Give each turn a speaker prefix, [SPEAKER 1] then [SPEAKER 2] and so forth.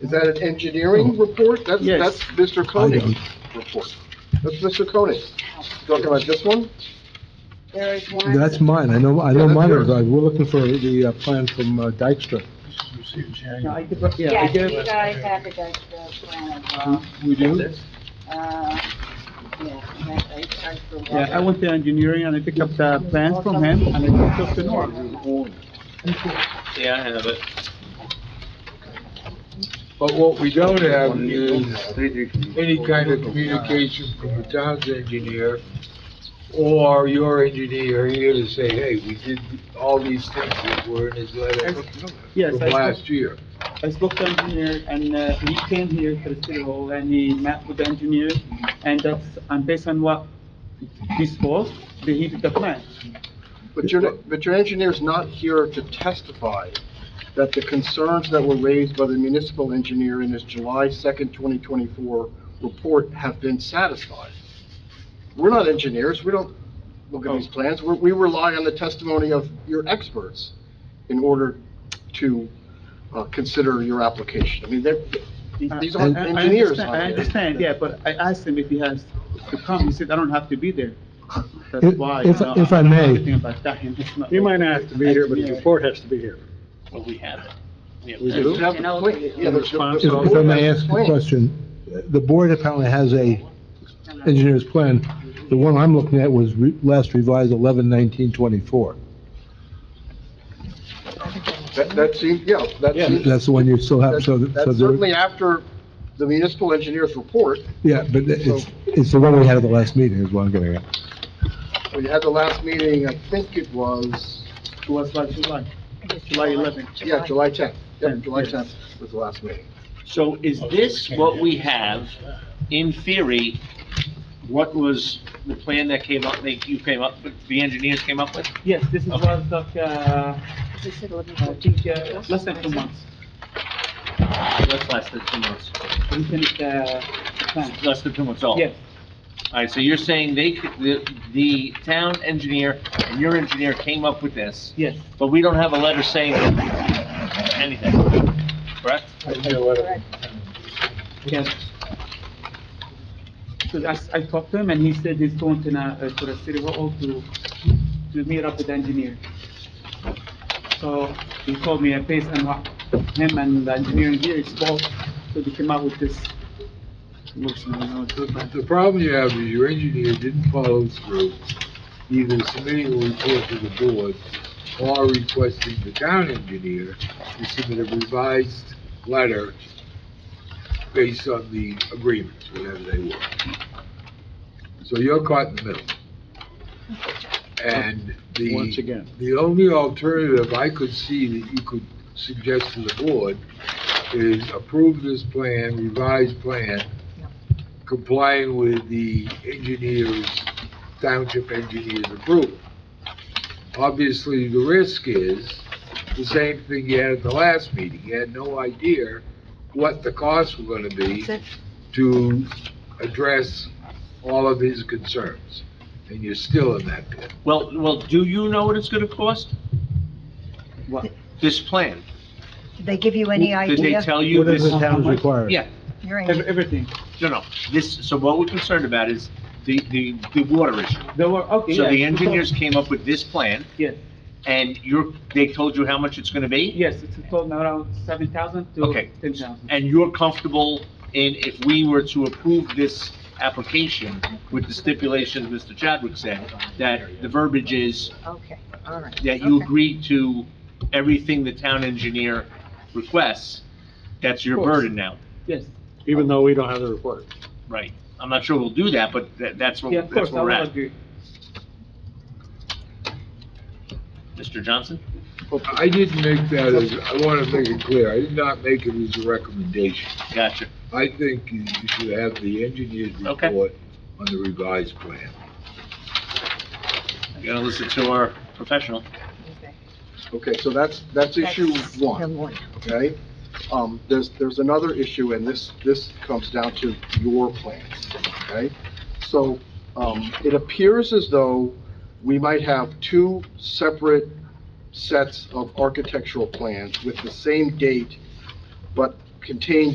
[SPEAKER 1] Is that an engineering report? That's,
[SPEAKER 2] Yes.
[SPEAKER 1] that's Mr. Koenig's report. That's Mr. Koenig. Talking about this one?
[SPEAKER 3] There is one.
[SPEAKER 4] That's mine, I know, I know
[SPEAKER 1] Yeah, that's
[SPEAKER 4] mine, are-
[SPEAKER 1] yours.
[SPEAKER 4] we're looking for the uh, plan from uh, Dykstra.
[SPEAKER 2] No, I did, yeah, I
[SPEAKER 3] Yes,
[SPEAKER 2] did.
[SPEAKER 3] you guys have the Dutch plan as well.
[SPEAKER 4] We do?
[SPEAKER 3] Uh, yeah, and that- they charge for water.
[SPEAKER 2] Yeah, I went to engineering and I picked up the plans from him and I took the norm.
[SPEAKER 5] Yeah, I have it.
[SPEAKER 6] But what we don't have is any kind of communication from the town's engineer or your engineer here to say, hey, we did all these things that were in his letter
[SPEAKER 2] Yes,
[SPEAKER 6] from
[SPEAKER 2] I
[SPEAKER 6] last
[SPEAKER 2] spoke,
[SPEAKER 6] year.
[SPEAKER 2] I spoke to engineer and uh, he came here to the city hall and he met with the engineer and that's, and based on what this was, they hit the plan.
[SPEAKER 1] But your, but your engineer's not here to testify that the concerns that were raised by the municipal engineer in his July 2nd, 2024 report have been satisfied. We're not engineers, we don't look at these plans, we we rely on the testimony of your experts in order to uh, consider your application. I mean, they're, these aren't
[SPEAKER 2] I- I- I
[SPEAKER 1] engineers.
[SPEAKER 2] understand-
[SPEAKER 1] out
[SPEAKER 2] I
[SPEAKER 1] there.
[SPEAKER 2] understand, yeah, but I asked him if he has to come, he said, I don't have to be there. That's
[SPEAKER 4] If-
[SPEAKER 2] why.
[SPEAKER 4] if-
[SPEAKER 2] uh,
[SPEAKER 4] if I
[SPEAKER 2] don't know
[SPEAKER 4] may.
[SPEAKER 2] anything about that, and it's not-
[SPEAKER 7] You might not have to be here, but the
[SPEAKER 2] Engineer.
[SPEAKER 7] report has to be here.
[SPEAKER 5] Well, we have it.
[SPEAKER 1] You have the complaint- yeah, the- the-
[SPEAKER 4] If
[SPEAKER 1] the
[SPEAKER 4] if I
[SPEAKER 1] board
[SPEAKER 4] may
[SPEAKER 1] has
[SPEAKER 4] ask a
[SPEAKER 1] complained.
[SPEAKER 4] question, the board apparently has a engineer's plan. The one I'm looking at was re- last revised 11/19/24.
[SPEAKER 1] That, that seems, yeah, that seems.
[SPEAKER 4] That's the one you still have,
[SPEAKER 1] That's
[SPEAKER 4] so, th- so,
[SPEAKER 1] that's
[SPEAKER 4] there-
[SPEAKER 1] certainly after the municipal engineer's report,
[SPEAKER 4] yeah, but it's, it's the one we had at the last meeting is what I'm getting at.
[SPEAKER 1] we had the last meeting, I think it was,
[SPEAKER 2] It was last July, July 11th.
[SPEAKER 1] yeah, July 10th. Yeah,
[SPEAKER 2] Tenth,
[SPEAKER 1] July
[SPEAKER 2] yes.
[SPEAKER 1] 10th was the last meeting.
[SPEAKER 5] So is this what we have, in theory, what was the plan that came up, that you came up, with, the engineers came up with?
[SPEAKER 2] Yes, this is
[SPEAKER 5] Okay.
[SPEAKER 2] was like, uh, I think, uh, less than two months.
[SPEAKER 5] That's less than two months.
[SPEAKER 2] We finished, uh, plan.
[SPEAKER 5] Less than two months old?
[SPEAKER 2] Yes,
[SPEAKER 5] All right, so you're saying they, c- the, the town engineer and your engineer came up with this,
[SPEAKER 2] yes.
[SPEAKER 5] but we don't have a letter saying anything, correct?
[SPEAKER 3] Correct.
[SPEAKER 2] Yes. So that's, I talked to him and he said he's going to, na- uh, to the city hall to, to meet up with the engineer. So he told me a place and what, him and the engineer here is both, so they came up with this. motion, you know, to-
[SPEAKER 6] The problem you have is your engineer didn't follow through, either submitting a report to the board or requesting the town engineer to submit a revised letter based on the agreements, whatever they were. So you're caught in the middle. And the.
[SPEAKER 7] Once again.
[SPEAKER 6] The only alternative I could see that you could suggest to the board is approve this plan, revised plan, complying with the engineer's, township engineer's approval. Obviously, the risk is the same thing you had at the last meeting. You had no idea what the costs were gonna be to address all of his concerns, and you're still in that pit.
[SPEAKER 5] Well, well, do you know what it's gonna cost?
[SPEAKER 2] What?
[SPEAKER 5] This plan?
[SPEAKER 8] Did they give you any
[SPEAKER 5] Did they
[SPEAKER 8] idea?
[SPEAKER 5] tell you
[SPEAKER 4] What
[SPEAKER 5] this?
[SPEAKER 4] is the town's required?
[SPEAKER 5] Yeah,
[SPEAKER 8] You're in-
[SPEAKER 2] Ev- Everything.
[SPEAKER 5] no, no, this, so what we're concerned about is the, the, the water issue.
[SPEAKER 2] They were, okay,
[SPEAKER 5] So
[SPEAKER 2] yeah,
[SPEAKER 5] the
[SPEAKER 2] we talked-
[SPEAKER 5] engineers came up with this plan,
[SPEAKER 2] Yes,
[SPEAKER 5] and you're, they told you how much it's gonna be?
[SPEAKER 2] yes, it's a total around seven thousand to
[SPEAKER 5] Okay.
[SPEAKER 2] ten thousand.
[SPEAKER 5] And you're comfortable in, if we were to approve this application with the stipulations Mr. Chadwick said, that the verbiage is
[SPEAKER 8] Okay, all right.
[SPEAKER 5] that you
[SPEAKER 8] Okay.
[SPEAKER 5] agree to everything the town engineer requests, that's your
[SPEAKER 2] Of course.
[SPEAKER 5] burden now,
[SPEAKER 2] Yes,
[SPEAKER 7] Even though we don't have the report.
[SPEAKER 5] right? I'm not sure we'll do that, but that, that's what,
[SPEAKER 2] yeah, of
[SPEAKER 5] that's
[SPEAKER 2] course, I
[SPEAKER 5] where we're
[SPEAKER 2] will
[SPEAKER 5] at.
[SPEAKER 2] agree.
[SPEAKER 5] Mr. Johnson?
[SPEAKER 6] I didn't make that as, I want to make it clear, I did not make it as a recommendation.
[SPEAKER 5] Gotcha.
[SPEAKER 6] I think you you should have the engineer's
[SPEAKER 5] Okay.
[SPEAKER 6] report on the revised plan.
[SPEAKER 5] You gotta listen to our professional.
[SPEAKER 8] Okay.
[SPEAKER 1] Okay, so that's, that's issue
[SPEAKER 8] That's the
[SPEAKER 1] one, okay? Um, there's, there's another issue, and this, this comes down to your plans, okay? So, um, it appears as though we might have two separate sets of architectural plans with the same date, but contain